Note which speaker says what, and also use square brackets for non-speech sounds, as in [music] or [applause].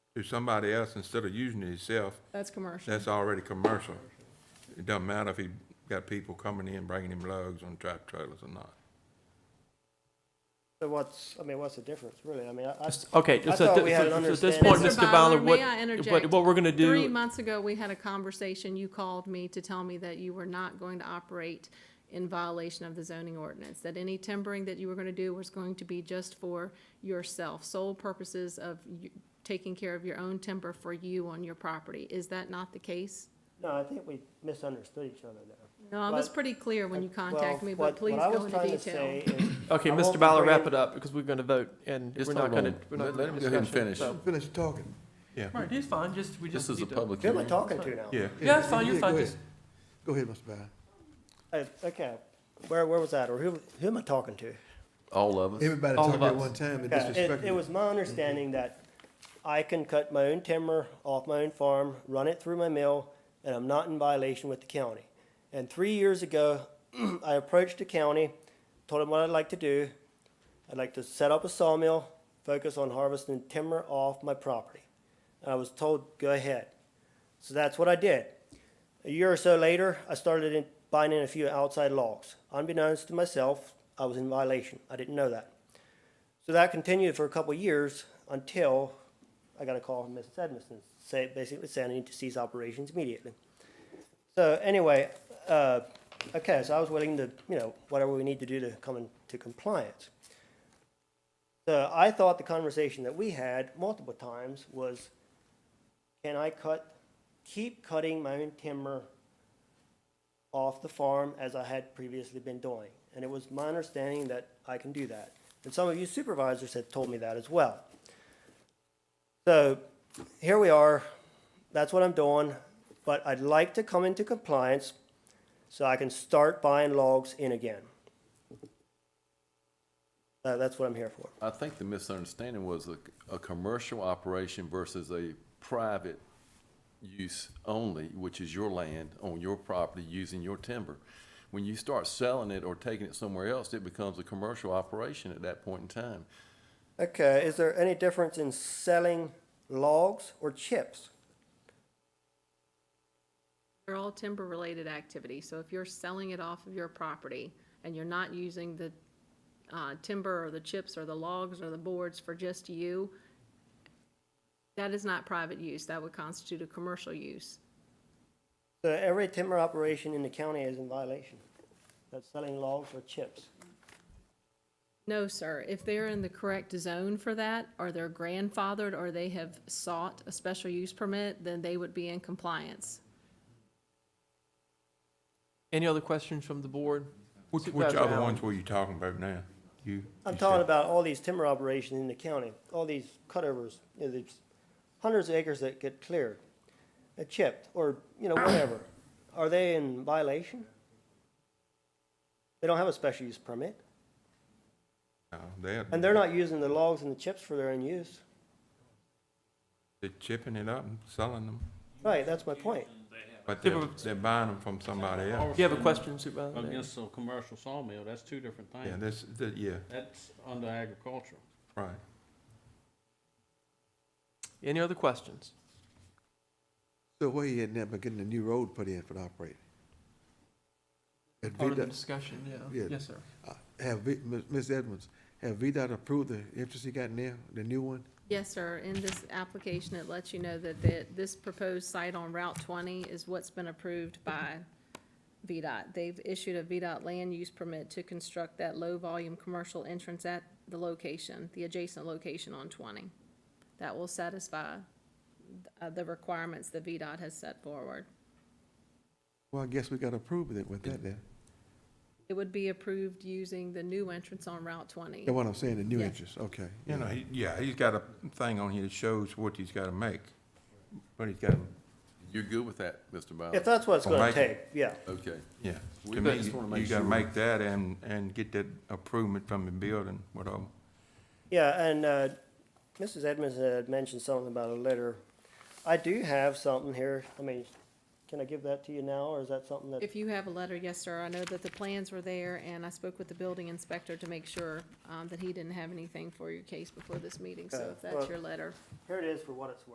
Speaker 1: to somebody else instead of using it himself,
Speaker 2: That's commercial.
Speaker 1: that's already commercial. It doesn't matter if he got people coming in, bringing him logs on tractor trailers or not.
Speaker 3: So what's, I mean, what's the difference, really? I mean, I, I,
Speaker 4: Okay,
Speaker 3: I
Speaker 4: so
Speaker 3: thought
Speaker 4: at thi-
Speaker 3: we had
Speaker 4: so-
Speaker 3: an
Speaker 4: so at this
Speaker 3: understanding-
Speaker 4: point,
Speaker 2: Mr.
Speaker 4: Mr.
Speaker 2: Byler,
Speaker 4: Bowler,
Speaker 2: may
Speaker 4: what,
Speaker 2: I
Speaker 4: what,
Speaker 2: interject?
Speaker 4: what we're gonna
Speaker 2: Three
Speaker 4: do,
Speaker 2: months ago, we had a conversation. You called me to tell me that you were not going to operate in violation of the zoning ordinance, that any timbering that you were gonna do was going to be just for yourself, sole purposes of you, taking care of your own timber for you on your property. Is that not the case?
Speaker 3: no, I think we misunderstood each other there.
Speaker 2: No, I was
Speaker 3: But-
Speaker 2: pretty clear when you
Speaker 3: Well,
Speaker 2: contacted me,
Speaker 3: what-
Speaker 2: but please
Speaker 3: what I
Speaker 2: go
Speaker 3: was
Speaker 2: into
Speaker 3: trying to
Speaker 2: detail.
Speaker 3: say is
Speaker 4: okay,
Speaker 3: I
Speaker 4: Mr.
Speaker 3: won't
Speaker 4: Bowler,
Speaker 3: bring
Speaker 4: wrap
Speaker 3: in-
Speaker 4: it up, because we're gonna vote, and
Speaker 5: It's
Speaker 4: we're
Speaker 5: not
Speaker 4: not gonna,
Speaker 5: wrong.
Speaker 4: we're not
Speaker 5: Let-
Speaker 4: gonna
Speaker 5: let him go ahead and
Speaker 4: discuss it,
Speaker 5: finish.
Speaker 4: so-
Speaker 6: Finish talking.
Speaker 1: Yeah,
Speaker 4: Right, it's fine, just, we just
Speaker 5: This is a
Speaker 4: need to-
Speaker 5: public
Speaker 3: Who am I
Speaker 5: hearing.
Speaker 3: talking to now?
Speaker 1: yeah.
Speaker 4: Yeah, it's fine, you're
Speaker 6: Yeah,
Speaker 4: fine,
Speaker 6: go
Speaker 4: just,
Speaker 6: ahead. Go ahead, Mr. Bowden.
Speaker 3: Uh, Okay, where, where was that, or who, who am I talking to?
Speaker 5: All of us.
Speaker 6: Everybody
Speaker 4: All
Speaker 6: talking
Speaker 4: of
Speaker 6: at
Speaker 4: us.
Speaker 6: one time and
Speaker 3: Yeah, It, it
Speaker 6: disrespecting.
Speaker 3: was my understanding that I can cut my own timber off my own farm, run it through my mill, and I'm not in violation with the county. And three years ago, [clears throat] I approached the county, told them what I'd like to do. I'd like to set up a sawmill, focus on harvesting timber off my property. And I was told, go ahead. So that's what I did. A year or so later, I started in, buying in a few outside logs. Unbeknownst to myself, I was in violation. I didn't know that. So that continued for a couple of years until I got a call from Mrs. Edmiston, say, basically saying I need to cease operations immediately. So anyway, uh, okay, so I was willing to, you know, whatever we need to do to come into compliance. So I thought the conversation that we had multiple times was, can I cut, keep cutting my own timber off the farm as I had previously been doing. And it was my understanding that I can do that. And some of you supervisors had told me that as well. So here we are. That's what I'm doing. But I'd like to come into compliance so I can start buying logs in again. Uh, that's what I'm here for.
Speaker 5: I think the misunderstanding was a, a commercial operation versus a private use only, which is your land on your property using your timber. When you start selling it or taking it somewhere else, it becomes a commercial operation at that point in time.
Speaker 3: Okay, is there any difference in selling logs or chips?
Speaker 2: They're all timber-related activities, so if you're selling it off of your property and you're not using the uh, timber or the chips or the logs or the boards for just you, that is not private use. That would constitute a commercial use.
Speaker 3: So every timber operation in the county is in violation. That's selling logs or chips.
Speaker 2: No, sir. If they're in the correct zone for that, or they're grandfathered, or they have sought a special use permit, then they would be in compliance.
Speaker 4: any other questions from the board?
Speaker 1: Which, which
Speaker 4: Supervisor
Speaker 1: other
Speaker 4: Allen.
Speaker 1: ones were you talking about now? You?
Speaker 3: I'm
Speaker 1: you
Speaker 3: talking
Speaker 1: said-
Speaker 3: about all these timber operations in the county, all these cutovers, you know, there's hundreds of acres that get cleared, uh, chipped, or, you know, whatever. Are they in violation? They don't have a special use permit,
Speaker 1: No, They're,
Speaker 3: and they're not using the logs and the chips for their own use.
Speaker 1: they're chipping it up and selling them,
Speaker 3: Right, that's my point.
Speaker 1: but they're,
Speaker 4: Timber-
Speaker 1: they're buying them from somebody else.
Speaker 4: You have a question, Supervisor? Davis?
Speaker 7: Against a commercial sawmill, that's two different
Speaker 1: Yeah,
Speaker 7: things.
Speaker 1: this, that, yeah,
Speaker 7: That's under agriculture.
Speaker 1: right.
Speaker 4: Any other questions?
Speaker 6: So where you at now, but getting a new road put in for the operator? Had
Speaker 4: Part of the
Speaker 6: VDOT
Speaker 4: discussion, yeah.
Speaker 6: Yeah.
Speaker 4: Yes, sir.
Speaker 6: uh, Have, V- Ms. Ms. Edmonds, have VDOT approved the interest he got now, the new one?
Speaker 2: Yes, sir. In this application, it lets you know that the, this proposed site on Route twenty is what's been approved by VDOT. They've issued a VDOT land use permit to construct that low-volume commercial entrance at the location, the adjacent location on twenty. That will satisfy uh, the requirements that VDOT has set forward.
Speaker 6: Well, I guess we gotta approve it with that then.
Speaker 2: It would be approved using the new entrance on Route twenty.
Speaker 6: That's what I'm saying, the new
Speaker 2: Yeah.
Speaker 6: interest, okay.
Speaker 1: You know, he, yeah, he's got a thing on here that shows what he's gotta make, but he's got,
Speaker 5: You're good with that, Mr. Bowler?
Speaker 3: If that's what it's
Speaker 1: Well,
Speaker 3: gonna
Speaker 1: Mike-
Speaker 3: take, yeah.
Speaker 5: Okay.
Speaker 1: yeah.
Speaker 5: We
Speaker 1: To me,
Speaker 5: just wanna
Speaker 1: you-
Speaker 5: make
Speaker 1: you gotta
Speaker 5: sure.
Speaker 1: make that and, and get that improvement from the building, whatever.
Speaker 3: Yeah, and uh, Mrs. Edmonds had mentioned something about a letter. I do have something here. I mean, can I give that to you now, or is that something that?
Speaker 2: If you have a letter, yes, sir. I know that the plans were there, and I spoke with the building inspector to make sure um, that he didn't have anything for your case before this meeting, so
Speaker 3: Okay,
Speaker 2: if that's
Speaker 3: well-
Speaker 2: your letter.
Speaker 3: Here it is for what it's worth.